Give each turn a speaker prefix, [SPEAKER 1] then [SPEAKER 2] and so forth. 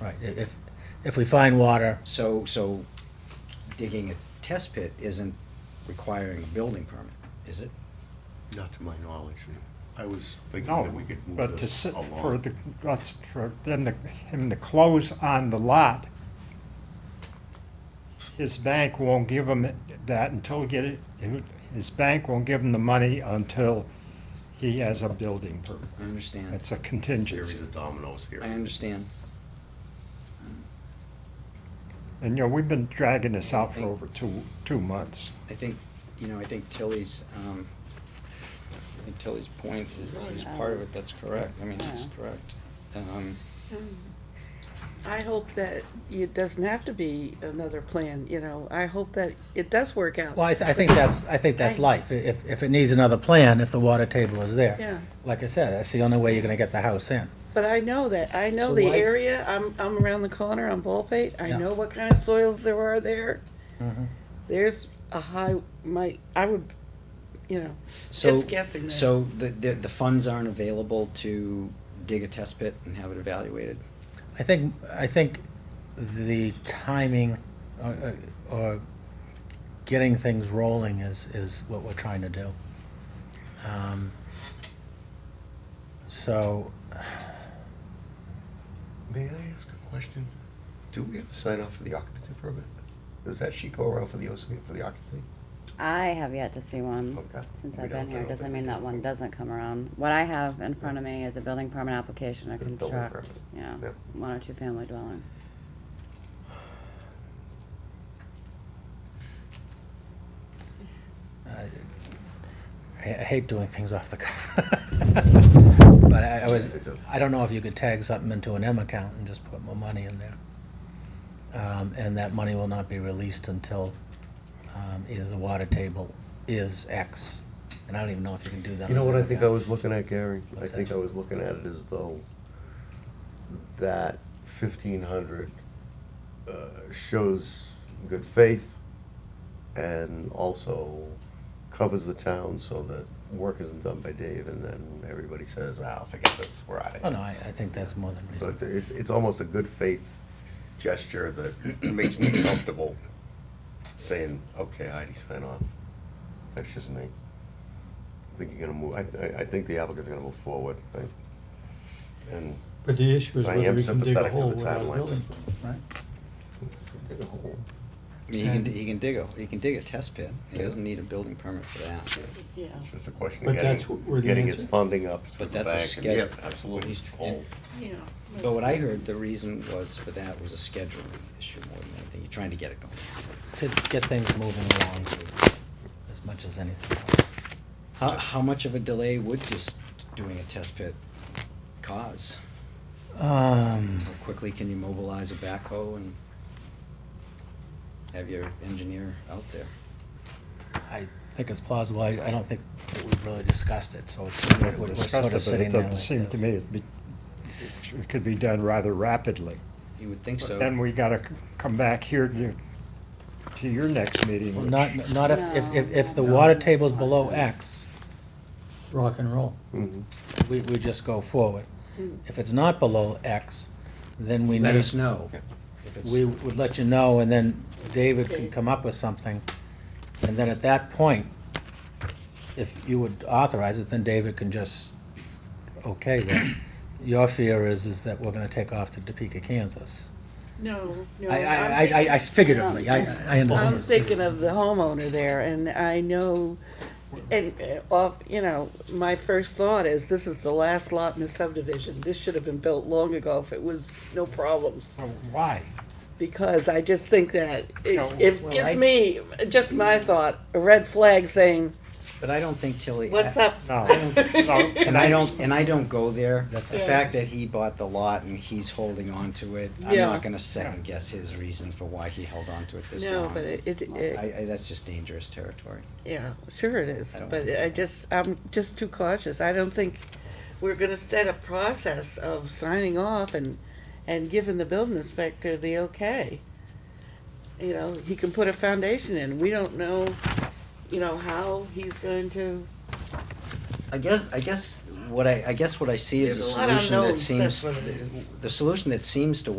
[SPEAKER 1] Right, i- if, if we find water,
[SPEAKER 2] So, so digging a test pit isn't requiring a building permit, is it?
[SPEAKER 3] Not to my knowledge. I was thinking
[SPEAKER 4] No,
[SPEAKER 3] that we could move
[SPEAKER 4] but to
[SPEAKER 3] this
[SPEAKER 4] sit
[SPEAKER 3] along.
[SPEAKER 4] for the, us- for them, to- him to close on the lot, his bank won't give him that until he get it, his bank won't give him the money until he has a building permit.
[SPEAKER 3] Mm-hmm.
[SPEAKER 2] I understand.
[SPEAKER 4] It's a
[SPEAKER 3] Series
[SPEAKER 4] contingency.
[SPEAKER 3] of dominoes here.
[SPEAKER 2] I understand.
[SPEAKER 4] And, you know, we've been dragging this out for over two, two months.
[SPEAKER 2] I think, you know, I think Tilly's, um, I think Tilly's point is, is part of it, that's correct. I mean, she's correct. Um,
[SPEAKER 5] I hope that it doesn't have to be another plan, you know, I hope that it does work out.
[SPEAKER 1] well, I, th- I think that's, I think that's life. I- If, if it needs another plan, if the water table is there.
[SPEAKER 5] Yeah.
[SPEAKER 1] Like I said, that's the only way you're gonna get the house in.
[SPEAKER 5] But I know that, I know
[SPEAKER 2] So
[SPEAKER 5] the
[SPEAKER 2] why-
[SPEAKER 5] area, I'm, I'm around the corner on Ballpate, I
[SPEAKER 1] Yeah.
[SPEAKER 5] know what kind of soils there are there.
[SPEAKER 1] Mhm.
[SPEAKER 5] There's a high, my, I would, you know,
[SPEAKER 2] So,
[SPEAKER 5] Just guessing there.
[SPEAKER 2] So the, the, the funds aren't available to dig a test pit and have it evaluated?
[SPEAKER 1] I think, I think the timing or, or getting things rolling is, is what we're trying to do. Um, So,
[SPEAKER 3] May I ask a question? Do we have to sign off for the occupancy permit? Does that sheet go around for the OC, for the occupancy?
[SPEAKER 6] I have yet to see one
[SPEAKER 3] Okay.
[SPEAKER 6] since
[SPEAKER 3] We
[SPEAKER 6] I've
[SPEAKER 3] don't-
[SPEAKER 6] been
[SPEAKER 3] I
[SPEAKER 6] here.
[SPEAKER 3] don't
[SPEAKER 6] Doesn't
[SPEAKER 3] think
[SPEAKER 6] mean
[SPEAKER 3] we
[SPEAKER 6] that
[SPEAKER 3] do.
[SPEAKER 6] one doesn't come around. What I have in front of me is a building permit application to
[SPEAKER 3] The building
[SPEAKER 6] construct,
[SPEAKER 3] permit.
[SPEAKER 6] yeah,
[SPEAKER 3] Yep.
[SPEAKER 6] one or two family dwelling.
[SPEAKER 1] I I hate doing things off the cuff. But I I was, I don't know if you could tag something into an M account and just put more money in there. Um, And that money will not be released until um, either the water table is X. And I don't even know if you can do that.
[SPEAKER 3] You know
[SPEAKER 1] on
[SPEAKER 3] what
[SPEAKER 1] an
[SPEAKER 3] I
[SPEAKER 1] M
[SPEAKER 3] think I
[SPEAKER 1] account.
[SPEAKER 3] was looking at, Gary? I
[SPEAKER 1] What's
[SPEAKER 3] think
[SPEAKER 1] that?
[SPEAKER 3] I was looking at it as though that fifteen hundred uh, shows good faith and also covers the town so that work isn't done by Dave and then everybody says, ah, forget this, we're out of
[SPEAKER 1] Oh,
[SPEAKER 3] here.
[SPEAKER 1] no, I, I think that's more than
[SPEAKER 3] So
[SPEAKER 1] reasonable.
[SPEAKER 3] it's, it's, it's almost a good faith gesture that makes me comfortable saying, okay, Heidi, sign off. That's just me. I think you're gonna move, I, I, I think the applicant's gonna move forward, I- and
[SPEAKER 7] But the issue is
[SPEAKER 3] I
[SPEAKER 7] whether
[SPEAKER 3] am
[SPEAKER 7] we can dig a
[SPEAKER 3] sympathetic to
[SPEAKER 7] hole
[SPEAKER 3] the
[SPEAKER 7] without a
[SPEAKER 3] timeline.
[SPEAKER 7] building, right?
[SPEAKER 3] dig a hole.
[SPEAKER 2] I mean, he can,
[SPEAKER 7] And-
[SPEAKER 2] he can dig a, he can dig a test pit. He doesn't need a building permit for that.
[SPEAKER 5] yeah.
[SPEAKER 3] It's just a question
[SPEAKER 7] But
[SPEAKER 3] of
[SPEAKER 7] that's wh- where
[SPEAKER 3] getting,
[SPEAKER 7] the
[SPEAKER 3] getting his
[SPEAKER 7] answer-
[SPEAKER 3] funding up through
[SPEAKER 2] But
[SPEAKER 3] the
[SPEAKER 2] that's a
[SPEAKER 3] bank. and-
[SPEAKER 2] schedule.
[SPEAKER 3] Yep, Absolutely.
[SPEAKER 2] He's-
[SPEAKER 3] Hole.
[SPEAKER 5] Yeah.
[SPEAKER 2] But what I heard, the reason was for that was a scheduling issue more than anything. You're trying to get it going.
[SPEAKER 1] To get things moving along as much as anything else.
[SPEAKER 2] How, how much of a delay would just doing a test pit cause?
[SPEAKER 1] Um,
[SPEAKER 2] How quickly can you mobilize a backhoe and have your engineer out there?
[SPEAKER 1] I think it's plausible. I, I don't think that we've really discussed it, so it's, we're- we're sort of
[SPEAKER 4] Discussed it, but
[SPEAKER 1] sitting
[SPEAKER 4] it
[SPEAKER 1] there like
[SPEAKER 4] doesn't seem to
[SPEAKER 1] this.
[SPEAKER 4] me it'd be- it could be done rather rapidly.
[SPEAKER 2] You would think so.
[SPEAKER 4] But Then we gotta c- come back here to, to your next meeting,
[SPEAKER 1] Well,
[SPEAKER 4] which-
[SPEAKER 1] Not, not if, if, if- if the
[SPEAKER 6] No.
[SPEAKER 1] water table's below X,
[SPEAKER 7] Rock and roll.
[SPEAKER 3] Mhm.
[SPEAKER 1] we, we just go forward.
[SPEAKER 5] Hmm.
[SPEAKER 1] If it's not below X, then we need.
[SPEAKER 2] Let us know. if it's-
[SPEAKER 1] We would let you know, and then David can
[SPEAKER 5] Okay.
[SPEAKER 1] come up with something. And then at that point, if you would authorize it, then David can just, okay, then. Your fear is, is that we're gonna take off to Topeka, Kansas.
[SPEAKER 5] No, no.
[SPEAKER 1] I, I,
[SPEAKER 5] I'm
[SPEAKER 1] I- I, I figuratively, I, I understand.
[SPEAKER 5] I'm thinking of the homeowner there, and I know, and, uh, off- you know, my first thought is, this is the last lot in the subdivision. This should have been built long ago if it was no problems,
[SPEAKER 4] So Oh, why?
[SPEAKER 5] because I just think that it
[SPEAKER 4] No,
[SPEAKER 5] it
[SPEAKER 2] well, I-
[SPEAKER 5] gives me, just my thought, a red flag saying,
[SPEAKER 2] But I don't think Tilly.
[SPEAKER 5] what's up?
[SPEAKER 4] No, no,
[SPEAKER 2] And I don't, and I don't go there.
[SPEAKER 1] That's
[SPEAKER 2] The
[SPEAKER 5] Yeah.
[SPEAKER 2] fact that he bought the lot and he's holding on to it, I'm
[SPEAKER 5] Yeah.
[SPEAKER 2] not gonna second guess his reason for why he held on to it this long.
[SPEAKER 5] No, but it, it- it,
[SPEAKER 2] I, I, that's just dangerous territory.
[SPEAKER 5] yeah, sure it is,
[SPEAKER 2] I don't
[SPEAKER 5] but
[SPEAKER 2] know.
[SPEAKER 5] I just, I'm just too cautious. I don't think we're gonna set a process of signing off and, and giving the building inspector the okay. You know, he can put a foundation in. We don't know, you know, how he's going to,
[SPEAKER 2] I guess, I guess what I, I guess what I see is a
[SPEAKER 5] There's a lot of
[SPEAKER 2] solution that
[SPEAKER 5] unknowns, that's
[SPEAKER 2] seems,
[SPEAKER 5] what it is.
[SPEAKER 2] the solution that seems to